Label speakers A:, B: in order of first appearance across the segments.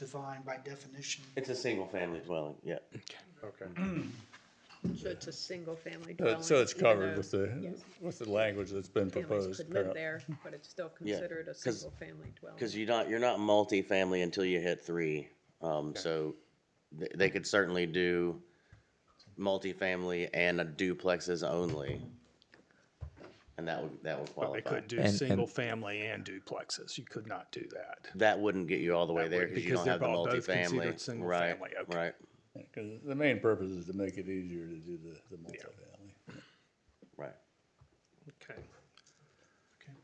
A: defined by definition.
B: It's a single-family dwelling, yeah.
C: Okay.
D: So it's a single-family
C: So-
D: dwelling.
C: So it's
D: even
C: covered
D: though
C: with the,
D: yes.
C: with the language that's been
D: Families
C: proposed.
D: could live
C: apparently.
D: there, but it's still considered a single-family dwelling.
B: Because you're not, you're not multifamily until you hit three. Um, so they, they could certainly do multifamily and a duplexes only. And that would, that would
E: But they
B: qualify.
E: could do
F: And- and-
E: single family and duplexes. You could not do that.
B: That wouldn't get you all the way
E: That
B: there
E: would-
B: because you
E: because
B: don't
E: they're
B: have the
E: all both considered
B: multifamily.
E: single
B: Right,
E: family, okay.
B: right,
C: 'Cause the main purpose is to make it easier to do the, the multifamily.
B: right.
G: Okay.
A: Okay.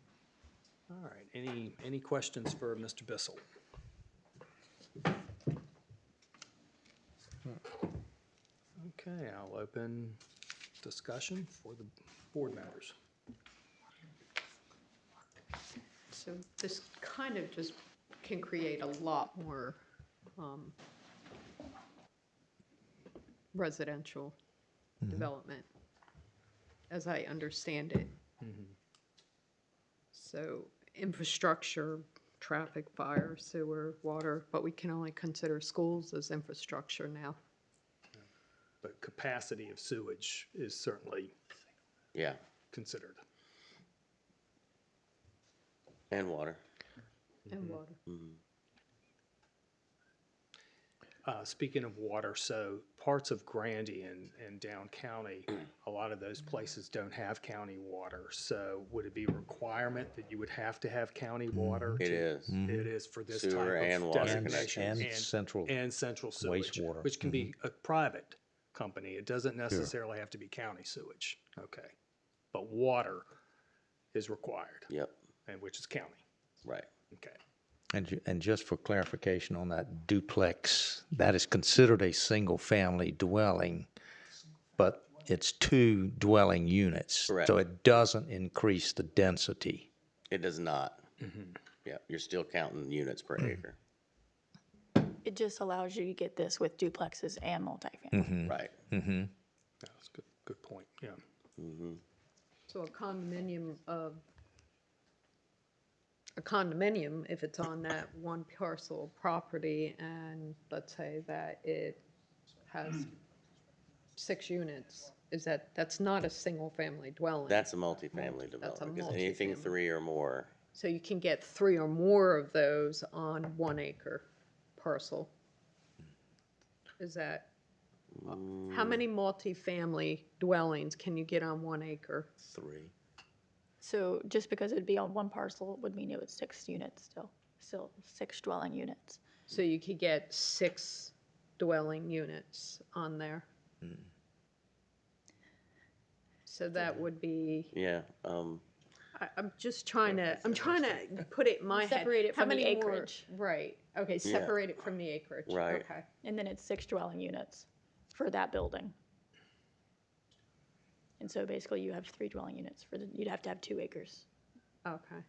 G: All right, any, any questions for Mr. Bissell? Okay, I'll open discussion for the board members.
D: So this kind of just can create a lot more um, residential
C: Mm-hmm.
D: development, as I understand it. So infrastructure, traffic, fire, sewer, water, but we can only consider schools as infrastructure now.
E: But capacity of sewage is certainly
B: Yeah,
E: considered.
B: and water.
D: And water.
E: Uh, speaking of water, so parts of Grandy and, and down county, a lot of those places don't have county water. So would it be a requirement that you would have to have county
F: Mm-hmm.
E: water?
B: It
E: to-
B: is.
E: It is for this type
B: Sewer and
E: of
B: water
F: And,
B: connection.
E: designation.
F: Mm-hmm. and central.
E: And central sewage,
F: wastewater. Mm-hmm.
E: which can be a private company. It doesn't necessarily have to be county sewage, okay? But water is required,
B: Yep,
E: and which is county,
B: right.
E: okay?
F: And, ju- and just for clarification on that duplex, that is considered a single-family dwelling, but it's two dwelling units.
B: Correct.
F: So it doesn't increase the density.
B: It does not.
E: Mm-hmm.
B: Yeah, you're still counting units per
E: Mm.
B: acre.
H: It just allows you to get this with duplexes and multifamily.
E: Mm.
B: Right,
E: That's a good, good point, yeah.
D: So a condominium of, a condominium, if it's on that one parcel of property, and let's say that it has six units, is that, that's not a single-family dwelling?
B: that's a multifamily
D: That's a
B: development, because anything
D: multifamily.
B: three or more,
D: So you can get three or more of those on one acre parcel. Is that, how many multifamily dwellings can you get on one acre?
B: three.
H: So just because it'd be on one parcel would mean it was six units still, still six dwelling units.
D: So you could get six dwelling units on there. So that would be,
B: Yeah, um,
D: I, I'm just trying to, I'm trying to put it in my head.
H: Separate it
D: How
H: from the
D: many more-
H: acreage.
D: Right, okay, separate it from the acreage,
B: Right.
D: okay.
H: And then it's six dwelling units for that building. And so basically you have three dwelling units for the, you'd have to have two acres.
D: Okay.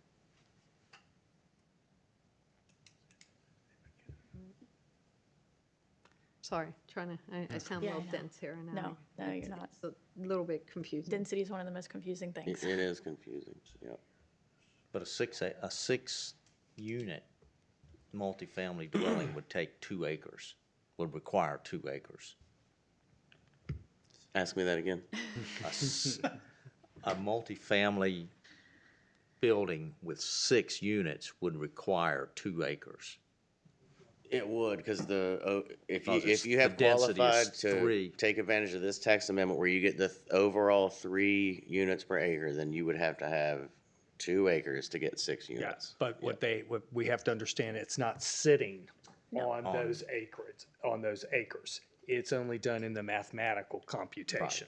D: Sorry, trying to, I, I sound a
H: Yeah, I
D: little
H: know.
D: dense here and
H: No, no, you're not.
D: It's a little bit confusing.
H: Density is one of the most confusing
B: it,
H: things.
B: it is confusing, yep.
F: But a six, a, a six-unit multifamily dwelling would take two acres, would require two acres.
B: Ask me that again.
F: A s- a multifamily building with six units would require two acres.
B: It would, because the, oh, if you,
F: Because it's-
B: if you have
F: the density is
B: qualified to
F: three.
B: take advantage of this tax amendment where you get the th- overall three units per acre, then you would have to have two acres to get six units.
E: Yes, but what they, what we have to understand, it's not sitting on those acres, on those acres. It's only done in the mathematical computation.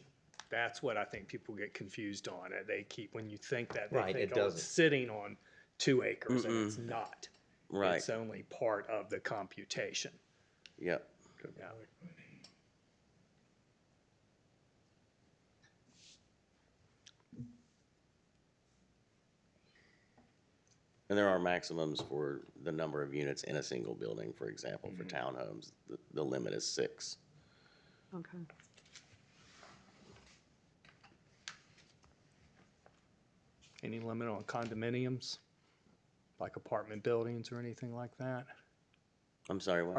E: That's what I think people get confused on. and They keep, when you think that, they
F: Right,
E: think,
F: it
E: oh,
F: doesn't.
E: it's sitting on two acres, and it's not.
B: Right.
E: It's only part of the computation.
B: Yep,
E: Yeah.
B: and there are maximums for the number of units in a single building, for example, for townhomes, the, the limit is six.
D: Okay.
E: Any limit on condominiums, like apartment buildings or anything like that?
B: I'm sorry, what?